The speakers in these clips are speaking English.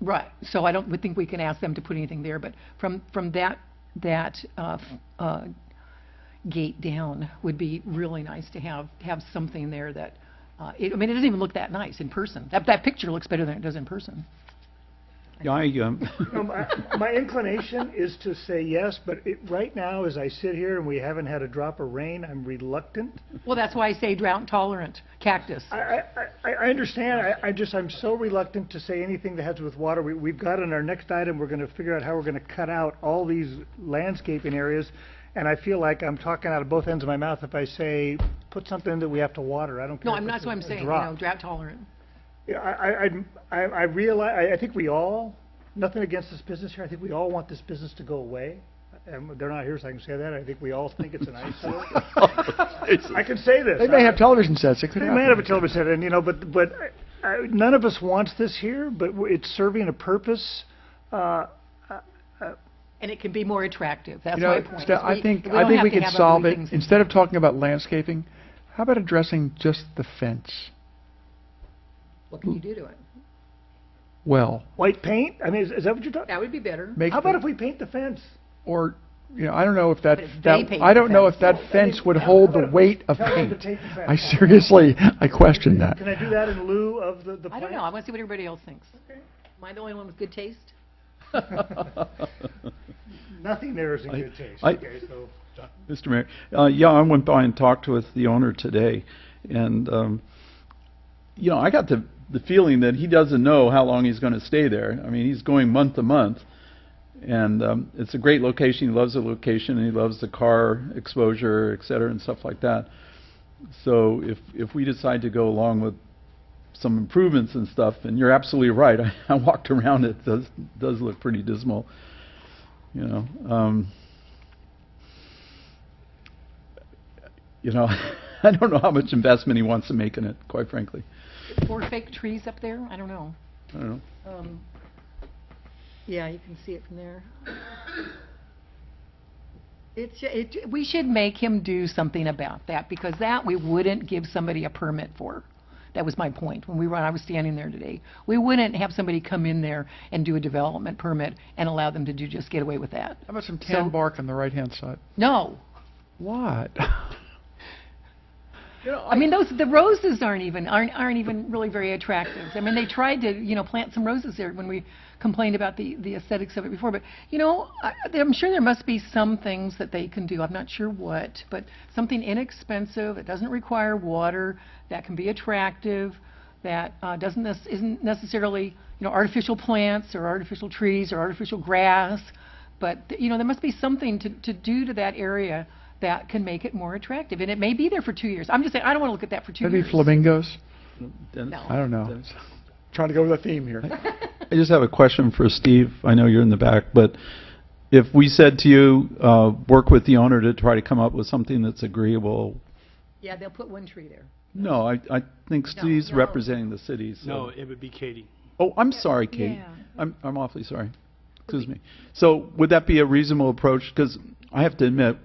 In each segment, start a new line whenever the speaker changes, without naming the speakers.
Right, so I don't would think we can ask them to put anything there, but from, from that, that, uh, f- uh, gate down would be really nice to have, have something there that, uh, it, I mean, it doesn't even look that nice in person. That, that picture looks better than it does in person.
Yeah, I, um,
No, my, my inclination is to say yes, but it, right now, as I sit here and we haven't had a drop of rain, I'm reluctant.
Well, that's why I say drought tolerant cactus.
I, I, I, I understand, I, I just, I'm so reluctant to say anything that has with water. We, we've got in our next item, we're gonna figure out how we're gonna cut out all these landscaping areas. And I feel like I'm talking out of both ends of my mouth if I say, put something that we have to water, I don't care.
No,
if
I'm not,
it's
so
a-
I'm
a
saying, you
drop.
know, drought tolerant.
Yeah, I, I, I'm- I, I realize, I, I think we all, nothing against this business here, I think we all want this business to go away. And they're not here, so I can say that, I think we all think it's an eyesore. I can say this.
they may have television sets, it could
They
happen.
may have a television set, and, you know, but, but, I- I- none of us wants this here, but w- it's serving a purpose. Uh,
And it can be more attractive, that's
You
my
know,
point.
Ste-
is
I
we-
think,
we
I
don't
think
have
we
to
could
have ugly
solve it,
things.
instead of talking about landscaping, how about addressing just the fence?
What can you do to it?
Well,
white paint, I mean, is, is that what you're talking?
That would be better.
make,
How about
the-
if we paint the fence?
or, you know, I don't know if that,
But if they
that,
paint
I
the
don't know if
fence.
that fence would hold the weight of
Tell them to
paint.
take the fence.
I seriously, I question that.
Can I do that in lieu of the, the
I
plant?
don't know, I want to see what everybody else thinks. Am I the only one with good taste?
Nothing there is in
I-
good taste,
I-
okay, so.
Mr. Mayor, uh, yeah, I went by and talked with the owner today, and, um, you know, I got the, the feeling that he doesn't know how long he's gonna stay there. I mean, he's going month to month, and, um, it's a great location, he loves the location, and he loves the car exposure, et cetera, and stuff like that. So if, if we decide to go along with some improvements and stuff, and you're absolutely right, I, I walked around, it does, does look pretty dismal, you know, um, you know, I don't know how much investment he wants to make in it, quite frankly.
Or fake trees up there, I don't know.
I don't know.
Um, Yeah, you can see it from there. It's, ju- it, we should make him do something about that, because that we wouldn't give somebody a permit for. That was my point, when we were, I was standing there today. We wouldn't have somebody come in there and do a development permit and allow them to do, just get away with that.
How about some
So-
tan bark on the right-hand side?
No.
What?
I mean, those, the roses aren't even, aren't, aren't even really very attractive. I mean, they tried to, you know, plant some roses there when we complained about the, the aesthetics of it before, but, you know, I, I'm sure there must be some things that they can do, I'm not sure what, but something inexpensive, that doesn't require water, that can be attractive, that, uh, doesn't, nec- isn't necessarily, you know, artificial plants or artificial trees or artificial grass, but, you know, there must be something to, to do to that area that can make it more attractive. And it may be there for two years. I'm just saying, I don't want to look at that for two
Maybe
years.
flamingos?
Dennis?
No.
I don't know. Trying to go with a theme here.
I just have a question for Steve. I know you're in the back, but if we said to you, uh, work with the owner to try to come up with something that's agreeable,
Yeah, they'll put one tree there.
no, I, I think Steve's
no.
representing the city, so.
No, it would be Katie.
Oh, I'm sorry, Kate.
yeah.
I'm, I'm awfully sorry. Excuse me. So would that be a reasonable approach? Because I have to admit,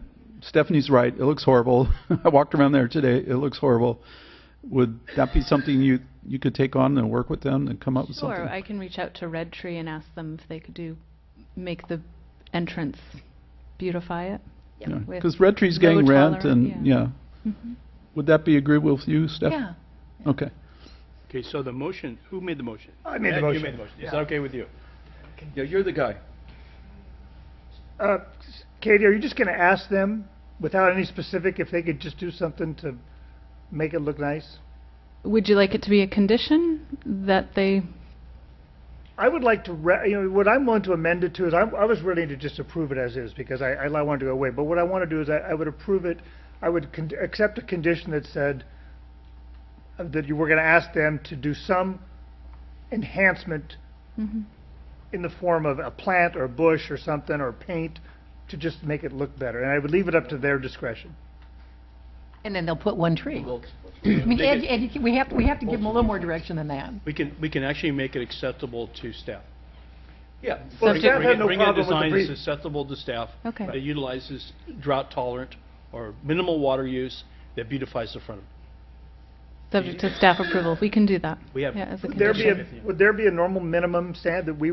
Stephanie's right. It looks horrible. I walked around there today. It looks horrible. Would that be something you, you could take on and work with them and come up with
Sure,
something?
I can reach out to Red Tree and ask them if they could do, make the entrance beautify it.
Yeah.
with
Because Red Tree's
no
getting rent
tolerant-
and,
yeah.
yeah. Would that be agreeable with you, Steph?
Yeah.
Okay.
Okay, so the motion, who made the motion?
I made the
Yeah, You
motion.
made the motion. Is that okay with you?
Yeah, you're the guy.
Uh, s- Katie, are you just gonna ask them, without any specific, if they could just do something to make it look nice?
Would you like it to be a condition that they,
I would like to, re- you know, what I'm willing to amend it to is, I, I was ready to just approve it as is, because I, I li- wanted to go away, but what I wanna do is, I, I would approve it, I would con- accept a condition that said uh, that you were gonna ask them to do some enhancement in the form of a plant or a bush or something, or paint, to just make it look better, and I would leave it up to their discretion.
And then they'll put one tree. I mean, Ed, Ed, you can- we have, we have to give them a little more direction than that.
We can, we can actually make it acceptable to staff.
Yeah.
Bring
Well,
it-
staff
bring
had
it-
no
bring in a
problem with the
design
brief.
that's acceptable to staff.
Okay.
That utilizes drought tolerant or minimal water use that beautifies the front of it.
subject to staff approval? We can do that.
We have-
Yeah, as a
Would there
condition.
be, a- would there be a normal minimum stand that we